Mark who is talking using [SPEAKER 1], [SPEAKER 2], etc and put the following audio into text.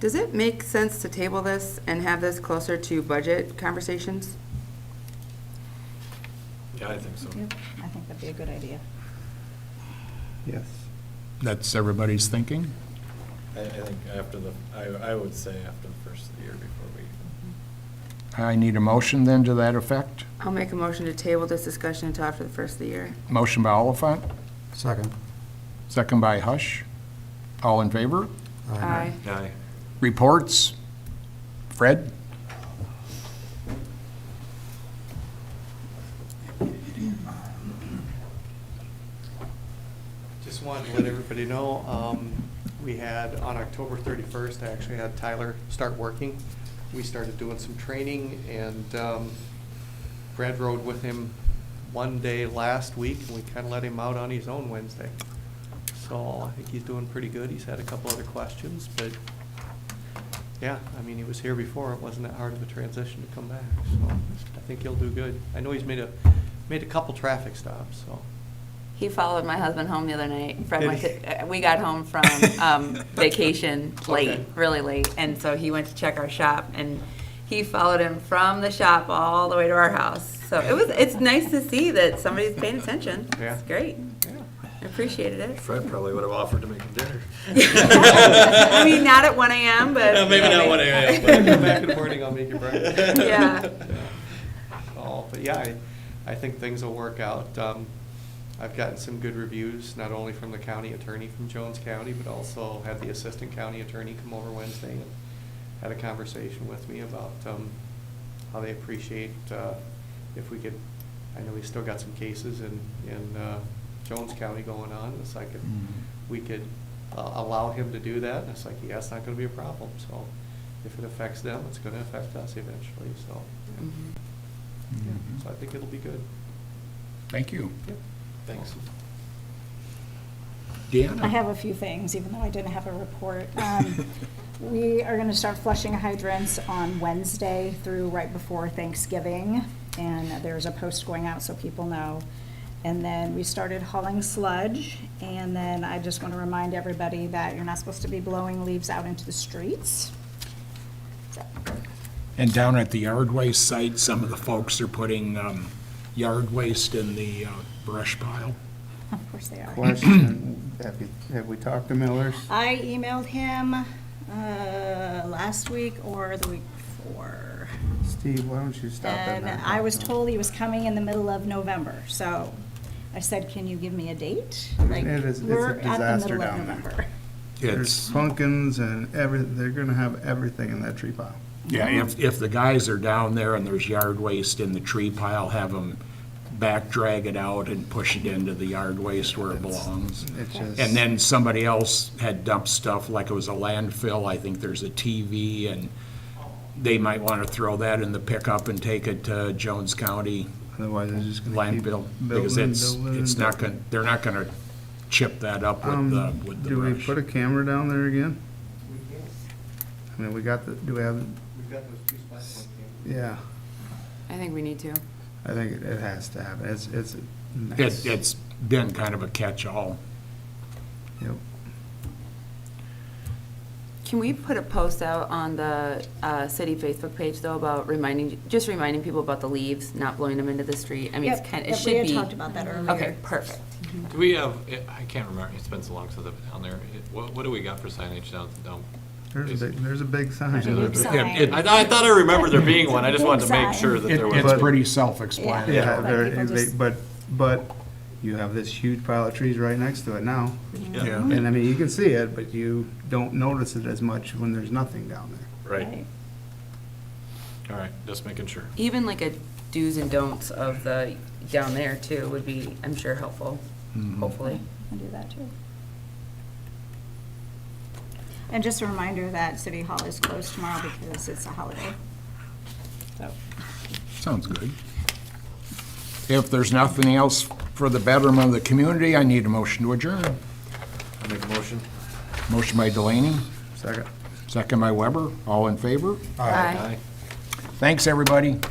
[SPEAKER 1] Does it make sense to table this and have this closer to budget conversations?
[SPEAKER 2] Yeah, I think so.
[SPEAKER 3] Yep, I think that'd be a good idea.
[SPEAKER 4] Yes.
[SPEAKER 5] That's everybody's thinking?
[SPEAKER 2] I, I think after the, I, I would say after the first of the year before we even.
[SPEAKER 5] I need a motion then to that effect.
[SPEAKER 1] I'll make a motion to table this discussion until after the first of the year.
[SPEAKER 5] Motion by Oliphant,
[SPEAKER 4] Second.
[SPEAKER 5] second by Hush. All in favor?
[SPEAKER 1] Aye.
[SPEAKER 2] Aye.
[SPEAKER 5] Reports? Fred?
[SPEAKER 6] Just wanted to let everybody know, um, we had, on October 31st, I actually had Tyler start working. We started doing some training, and um, Brad rode with him one day last week, and we kind of let him out on his own Wednesday. So I think he's doing pretty good. He's had a couple other questions, but, yeah, I mean, he was here before. It wasn't that hard of a transition to come back, so I think he'll do good. I know he's made a, made a couple traffic stops, so.
[SPEAKER 1] He followed my husband home the other night. Fred
[SPEAKER 6] Did
[SPEAKER 1] went
[SPEAKER 6] he?
[SPEAKER 1] to, uh, we got home from um, vacation late,
[SPEAKER 6] Okay.
[SPEAKER 1] really late, and so he went to check our shop, and he followed him from the shop all the way to our house. So it was, it's nice to see that somebody's paying attention.
[SPEAKER 6] Yeah.
[SPEAKER 1] It's great. I appreciated it.
[SPEAKER 2] Fred probably would have offered to make him dinner.
[SPEAKER 1] I mean, not at 1 a.m., but.
[SPEAKER 2] No, maybe not 1 a.m.,
[SPEAKER 6] When I come back in the morning, I'll make you breakfast.
[SPEAKER 1] Yeah.
[SPEAKER 6] Oh, but yeah, I, I think things will work out. Um, I've gotten some good reviews, not only from the county attorney from Jones County, but also had the assistant county attorney come over Wednesday and had a conversation with me about, um, how they appreciate, uh, if we could, I know we still got some cases in, in, uh, Jones County going on, it's like, if we could uh, allow him to do that, and it's like, yeah, it's not gonna be a problem, so if it affects them, it's gonna affect us eventually, so,
[SPEAKER 1] Mhm.
[SPEAKER 6] so I think it'll be good.
[SPEAKER 5] Thank you.
[SPEAKER 6] Yep.
[SPEAKER 2] Thanks.
[SPEAKER 5] Deanna?
[SPEAKER 3] I have a few things, even though I didn't have a report. Um, We are gonna start flushing hydrants on Wednesday through right before Thanksgiving, and there's a post going out so people know. And then we started hauling sludge, and then I just wanna remind everybody that you're not supposed to be blowing leaves out into the streets.
[SPEAKER 5] And down at the yard waste site, some of the folks are putting um, yard waste in the uh, brush pile.
[SPEAKER 3] Of course they are.
[SPEAKER 4] Question, have you, have we talked to Millers?
[SPEAKER 3] I emailed him uh, last week or the week before.
[SPEAKER 4] Steve, why don't you stop at
[SPEAKER 3] And
[SPEAKER 4] nine?
[SPEAKER 3] I was told he was coming in the middle of November, so I said, can you give me a date? Like,
[SPEAKER 4] It is- it's a
[SPEAKER 3] we're at the
[SPEAKER 4] disaster
[SPEAKER 3] middle of
[SPEAKER 4] down there.
[SPEAKER 3] November.
[SPEAKER 4] There's
[SPEAKER 5] It's,
[SPEAKER 4] pumpkins and every, they're gonna have everything in that tree pile.
[SPEAKER 5] yeah, if, if the guys are down there and there's yard waste in the tree pile, have them back drag it out and push it into the yard waste where it belongs.
[SPEAKER 4] It's just.
[SPEAKER 5] And then somebody else had dumped stuff, like it was a landfill, I think there's a TV, and they might want to throw that in the pickup and take it to Jones County
[SPEAKER 4] Otherwise, it's just gonna keep
[SPEAKER 5] landfill,
[SPEAKER 4] building,
[SPEAKER 5] because it's,
[SPEAKER 4] building,
[SPEAKER 5] it's not going, they're not going to chip that up with the,
[SPEAKER 4] Um,
[SPEAKER 5] with the
[SPEAKER 4] do we put a
[SPEAKER 5] brush.
[SPEAKER 4] camera down there again? I mean, we got the, do we have,
[SPEAKER 6] We've got those two spots.
[SPEAKER 4] yeah,
[SPEAKER 1] I think we need to.
[SPEAKER 4] I think it, it has to happen. It's, it's.
[SPEAKER 5] It, it's been kind of a catch-all.
[SPEAKER 4] Yep.
[SPEAKER 1] Can we put a post out on the uh, city Facebook page, though, about reminding, just reminding people about the leaves, not blowing them into the street? I mean, it's
[SPEAKER 3] Yep,
[SPEAKER 1] kind, it
[SPEAKER 3] yep,
[SPEAKER 1] should
[SPEAKER 3] we
[SPEAKER 1] be.
[SPEAKER 3] had talked about that earlier.
[SPEAKER 1] Okay, perfect.
[SPEAKER 2] Do we have, I can't remember, it's been so long since I've been down there. It- What, what do we got for signage down, down?
[SPEAKER 4] There's a big, there's a big sign.
[SPEAKER 2] There's a big
[SPEAKER 3] sign.
[SPEAKER 5] It- it-
[SPEAKER 2] I, I thought I remembered there being one. I just wanted to make
[SPEAKER 3] Big
[SPEAKER 2] sure that
[SPEAKER 5] It-
[SPEAKER 2] there was.
[SPEAKER 5] it's
[SPEAKER 4] But-
[SPEAKER 5] pretty
[SPEAKER 4] Yeah,
[SPEAKER 5] self-explanatory.
[SPEAKER 3] Like
[SPEAKER 4] very,
[SPEAKER 3] people
[SPEAKER 4] they-
[SPEAKER 3] just-
[SPEAKER 4] but, but you have this huge pile of trees right next to it now.
[SPEAKER 5] Oh, Yeah. Mm-hmm.
[SPEAKER 4] And I mean, you can see it, but you don't notice it as much when there's nothing down there.
[SPEAKER 2] Right, all right, just making sure.
[SPEAKER 1] Even like a do's and don'ts of the, down there, too, would be, I'm sure, helpful,
[SPEAKER 5] Mm-hmm.
[SPEAKER 1] hopefully.
[SPEAKER 3] I'll do that too. And just a reminder that City Hall is closed tomorrow because it's a holiday. So,
[SPEAKER 5] Sounds good. If there's nothing else for the betterment of the community, I need a motion to adjourn.
[SPEAKER 2] I make a motion?
[SPEAKER 5] Motion by Delaney,
[SPEAKER 4] Second.
[SPEAKER 5] second by Weber, all in favor?
[SPEAKER 1] Aye.
[SPEAKER 5] Thanks, everybody.